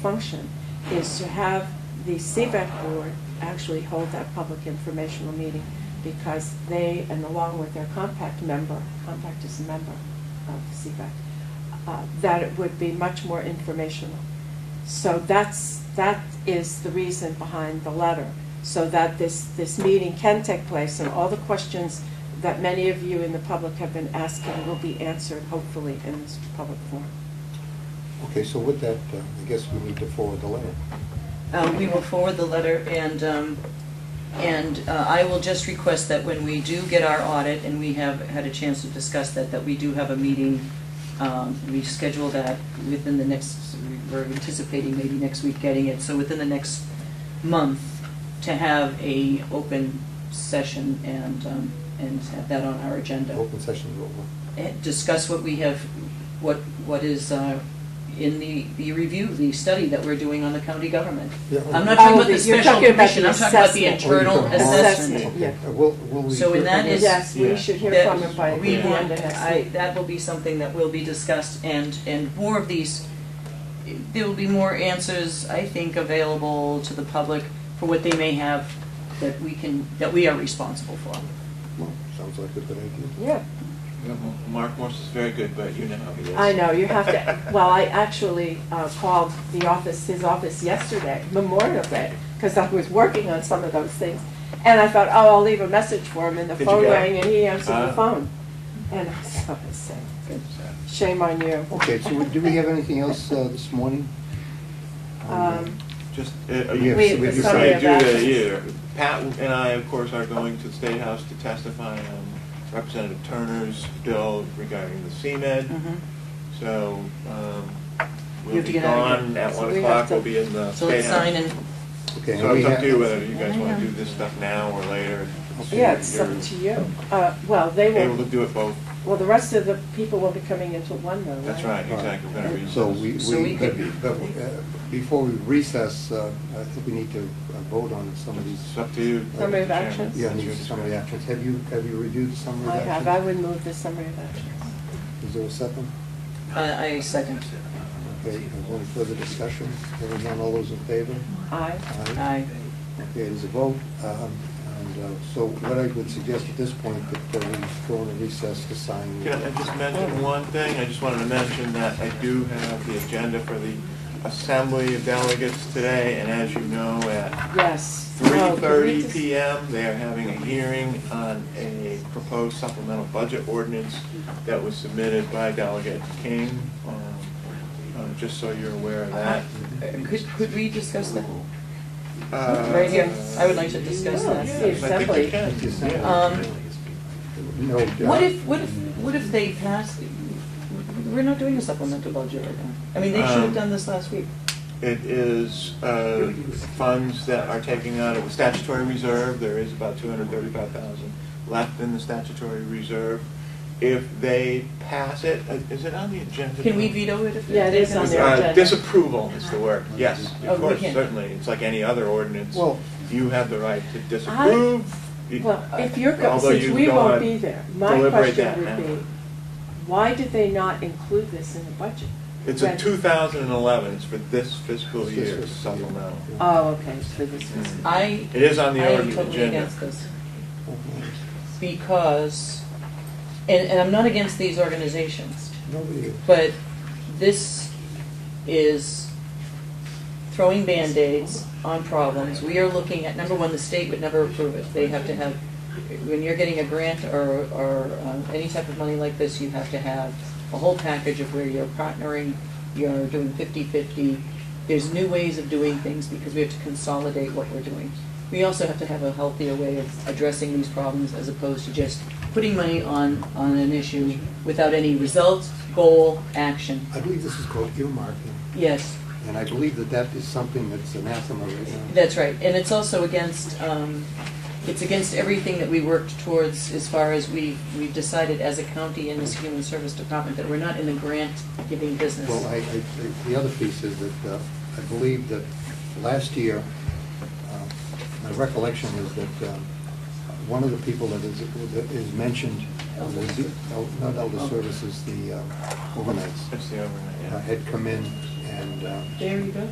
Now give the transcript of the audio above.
function is to have the CBEC board actually hold that public informational meeting because they, and along with their compact member, compact is a member of the CBEC, uh, that it would be much more informational. So that's, that is the reason behind the letter, so that this, this meeting can take place and all the questions that many of you in the public have been asking will be answered hopefully in this public forum. Okay, so with that, uh, I guess we need to forward the letter. Uh, We will forward the letter, and, um, and uh, I will just request that when we do get our audit, and we have had a chance to discuss that, that we do have a meeting, um, we schedule that within the next, we're anticipating maybe next week getting it, so within the next month, to have a open session and, um, and have that on our agenda Open session is over. and eh, discuss what we have, what, what is uh, in the, the review, the study that we're doing on the county government. Yeah. I'm not Oh, talking about the the- you're special talking about commission, the I'm talking about the assessment. internal Oh, you're talking about- assessment. Assessment. yeah. Okay, uh, Will, will we? So in hear that from is- you? Yes, we yeah. should hear That from him by we the end want- of next I, week. that will be something that will be discussed, and, and more of these, there will be more answers, I think, available to the public for what they may have that we can, that we are responsible for. Well, Sounds like a good idea. Yeah, Yeah, well, Mark Morse is very good, but you know how he is. I know, you have to, well, I actually uh, called the office, his office yesterday, Memorial Day, because I was working on some of those things. And I thought, oh, I'll leave a message for him, and the Did you phone get it? rang, and he answered the Ah. phone. And I said, I said, So, shame on you. Okay, so do we have anything else uh, this morning? Um, Just, uh, are We you, have- we we do have summary of that actions. here. Pat and I, of course, are going to the State House to testify on Representative Turner's bill regarding the Mm-hmm. CMed. Mhm. So, um, You we'll have to be get out of gone at So one we have o'clock, to- we'll be in the So State let's House. sign and Okay, and So we it's up have- to you whether you guys wanna do this stuff now or later. It's Yeah, your- it's up you're to you. Uh, Well, they Able to will, do it both, well, the rest of the people will be coming until one though, right? that's right, exactly, we're gonna read So we, So we, we could- but, uh, before we recess, uh, I think we need to uh, vote on some of It's these. up to you. Summary of Mr. Chairman. actions? Yeah, That's need your some of discretion. the actions. Have you, have you reviewed the summary I of have, I actions? would move the summary of actions. Is there a second? uh, I I second. Okay, is there any further discussion? Hearing none, all those in favor? Aye. Aye. Okay, there's a vote, um, and uh, so what I would suggest at this point, that uh, we go into recess to sign. Can I just mention one thing? I just wanted to mention that I do have the agenda for the Assembly of Delegates today, and as you know, at Yes. Oh, can we 3:30 just- PM, they are having a hearing on a proposed supplemental budget ordinance that was submitted by Delegate King, um, um, just so you're aware of that. Uh, Um, Could, could we discuss that? Uh, Right here, I would like to discuss Yeah, that. the I think you assembly. can. yeah. Um, No, uh, What if, what if, what if they pass, we're not doing a supplemental budget right now. I mean, they should Um, have done this last week. It is uh, funds that are taking out of a statutory reserve. There is about 235,000 left in the statutory reserve. If they pass it, uh, is it on the agenda? Can we veto it if they? Yeah, it is on the Uh, agenda. Disapproval is the word, yes, Oh, we of course, can. certainly. It's like any other ordinance. Well- You have the right to disapprove. You- Well, if you're, go- Uh, Although since you we don't won't wanna be there, my deliberate question that now. would be, why did they not include this in the budget? It's a When- 2011, it's for this fiscal This year fiscal year. supplemental. Oh, okay, so this was, I, It is on I the am org- totally agenda. against this. Because, and, and I'm not against these organizations, Nobody, but this is throwing Band-Aids on problems. We are looking at, number one, the state would never approve it. They have to have, when you're getting a grant or, or um, any type of money like this, you have to have a whole package of where you're partnering, you're doing 50/50. There's new ways of doing things because we have to consolidate what we're doing. We also have to have a healthier way of addressing these problems as opposed to just putting money on, on an issue without any results, goal, action. I believe this is called earmarking, Yes, and I believe that that is something that's anathema right now. That's right, and it's also against, um, it's against everything that we worked towards as far as we, we decided as a county and as Human Service Department that we're not in the grant-giving business. Well, I, I, the other piece is that uh, I believe that last year, uh, my recollection is that um, one of the people that is, that is mentioned, was the- not Elder Services, the uh, overnights, It's the overnight, uh, yeah. had come in and uh, There you go.